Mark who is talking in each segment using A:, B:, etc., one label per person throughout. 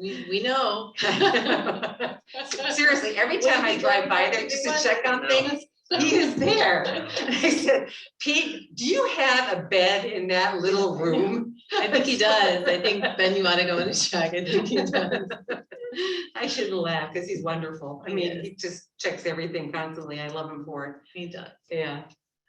A: We, we know.
B: Seriously, every time I drive by there just to check on things, he is there. And I said, Pete, do you have a bed in that little room?
A: I think he does. I think Ben, you wanna go and check. I think he does.
B: I shouldn't laugh because he's wonderful. I
A: He
B: mean,
A: is.
B: he just checks everything constantly. I love him for
A: He does.
B: it. Yeah.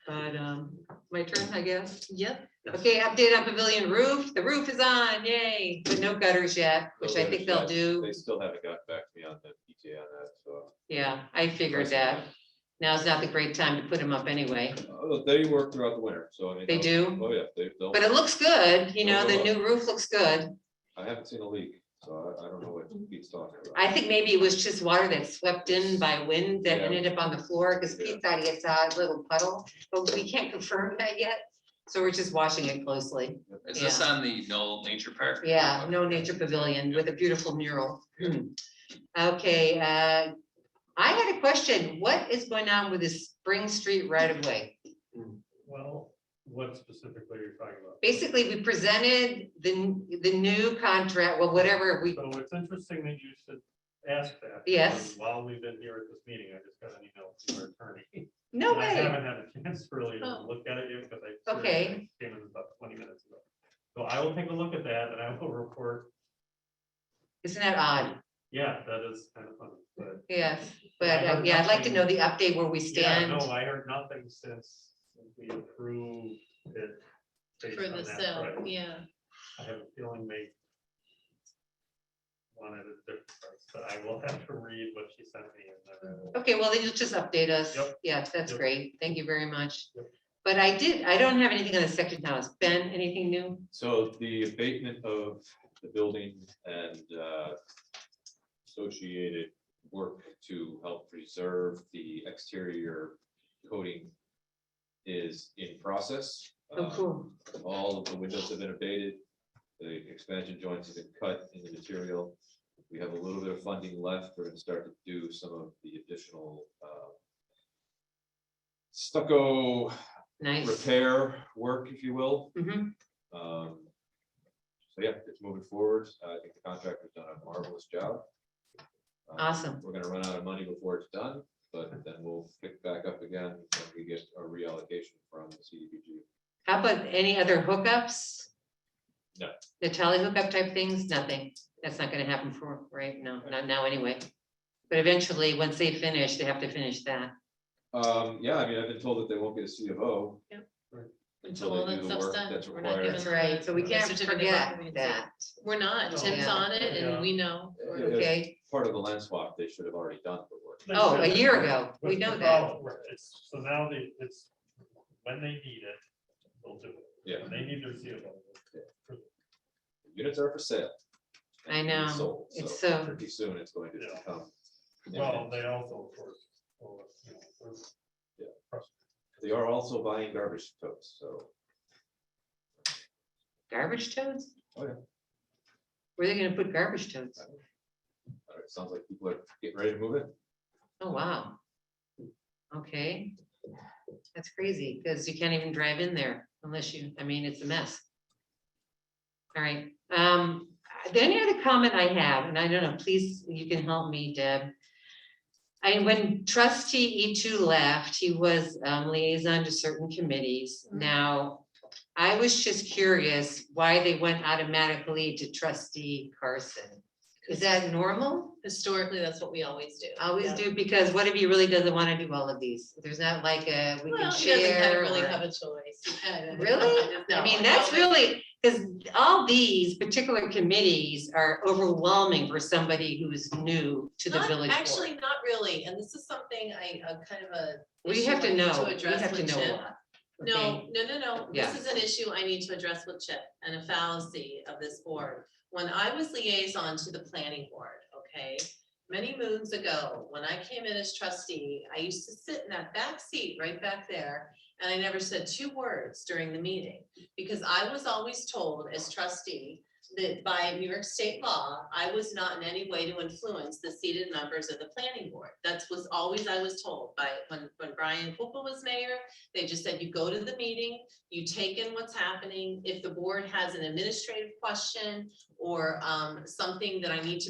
B: But um, my turn, I guess.
A: Yep.
B: Okay, update on pavilion roof. The roof is on, yay, but no gutters yet, which I think they'll do.
C: They still haven't got back to me on the PJ on that, so.
B: Yeah, I figured that. Now's not the great time to put them up anyway,
C: Oh, They work throughout the winter, so I mean.
B: They
C: they'll-
B: do?
C: Oh, yeah, they, they'll,
B: but it looks good, you know, the
C: Well,
B: new roof looks good.
C: I haven't seen a leak, so I, I don't know what Pete's talking about.
B: Mm-hmm. I think maybe it was just water that swept in by wind that
C: Yeah.
B: ended up on the floor, because
C: Yeah.
B: Pete thought he saw a little puddle, but we can't confirm that yet. So we're just watching it closely.
D: Is this
B: Yeah.
D: on the Knoll Nature Park?
B: Yeah, no nature pavilion with a beautiful mural. Okay, uh, I had a question. What is going on with this Spring Street right of way?
E: Well, what specifically are you talking about?
B: Basically, we presented the, the new contract, well, whatever we,
E: So it's interesting that you should ask that.
B: Yes.
E: because While we've been here at this meeting, I just got an email from our attorney.
B: no
E: And I
B: way.
E: haven't had a chance really to
A: Oh.
E: look at it yet because I. seriously
B: Okay.
E: Came in about twenty minutes ago. So I will take a look at that and I will report.
B: Isn't that odd?
E: Yeah, that is kind of funny, but.
B: Yes,
E: I
B: but uh,
E: heard
B: yeah, I'd like to
E: nothing.
B: know the update where we
E: Yeah,
B: stand.
E: no, I heard nothing since we approved it. based
A: For
E: on
A: the
E: that,
A: sale,
E: right.
A: yeah.
E: I have a feeling they wanted a different price, but I will have to read what she sent me and then I will.
B: Okay, well, then you'll just update us.
E: Yep.
B: Yeah, that's
E: Yep.
B: great. Thank you very much.
E: Yep.
B: But I did, I don't have anything on the second house. Ben, anything new?
C: So the abatement of the building and uh, associated work to help preserve the exterior coating is in process.
B: Oh,
C: Uh,
B: cool.
C: All of the windows have been abated, the expansion joints have been cut in the material. We have a little bit of funding left, we're gonna start to do some of the additional uh, stucco
B: Nice.
C: repair work, if you will.
B: Mhm.
C: Um, So yeah, it's moving forward. I think the contractor's done a marvelous job. Um,
B: Awesome.
C: We're gonna run out of money before it's done, but then we'll pick back up again when we get a reallocation from the CDBG.
B: How about any other hookups?
C: No.
B: The tally hookup type things? Nothing. That's not gonna happen for, right? No, not now anyway. But eventually, once they finish, they have to finish that.
C: Um, yeah, I mean, I've been told that they won't get a C of O.
A: Until
C: they
A: all
C: do
A: that
C: the
A: stuff's
C: work
A: done.
C: that's
A: We're not
C: required.
A: giving
B: That's
A: them
B: right.
A: the-
B: So we
A: the
B: can't
A: certificate of
B: forget
A: occupancy.
B: that.
A: We're not. Tim's
B: Yeah.
A: on it and
E: Yeah.
A: we know.
C: Yeah.
A: We're-
B: Okay.
C: Part of the land swap, they should have already done the work.
B: Oh, a year ago.
E: What's
B: We know
E: the
B: that.
E: problem? Right, it's- So now they, it's, when they need it, they'll do it.
C: Yeah,
E: When They need their CO.
C: units are for sale.
B: I know.
C: Sold,
B: It's
C: so
B: so-
C: pretty soon it's going to
E: Yeah.
C: come.
E: Well, they also, of course, will, you know, will-
C: They are also buying garbage totes, so.
B: Garbage totes?
C: Oh, yeah.
B: Where are they gonna put garbage totes?
C: uh, It sounds like people are getting ready to move in.
B: Oh, wow. Okay. That's crazy, because you can't even drive in there unless you, I mean, it's a mess. All right, um, the only other comment I have, and I don't know, please, you can help me, Deb. I, when trustee E two left, he was um, liaison to certain committees.
A: Mhm.
B: Now, I was just curious why they went automatically to trustee Carson. Is that normal?
A: Historically, that's what we always do.
B: Always do, because what if he really doesn't want to do all of these? There's not like a, we
A: Well,
B: can
A: he doesn't have-
B: share.
A: really
B: or-
A: have a choice.
B: Really?
A: No,
B: I mean,
A: don't
B: that's
A: think-
B: really, because all these particular committees are overwhelming for somebody who is new to the
A: Not-
B: village board.
A: Actually, not really, and this is something I, a kind of a.
B: We
A: issue
B: have
A: I
B: to
A: need
B: know, we
A: address
B: have to
A: with
B: know a
A: Chip.
B: lot.
A: No,
B: okay?
A: no, no, no,
B: Yeah.
A: this is an issue I need to address with Chip and a fallacy of this board. When I was liaison to the planning board, okay, many moons ago, when I came in as trustee, I used to sit in that back seat right back there. And I never said two words during the meeting, because I was always told as trustee that by New York state law, I was not in any way to influence the seated members of the planning board. That's was always I was told by, when, when Brian Cooper was mayor, they just said, you go to the meeting, you take in what's happening. If the board has an administrative question or, um, something that I need to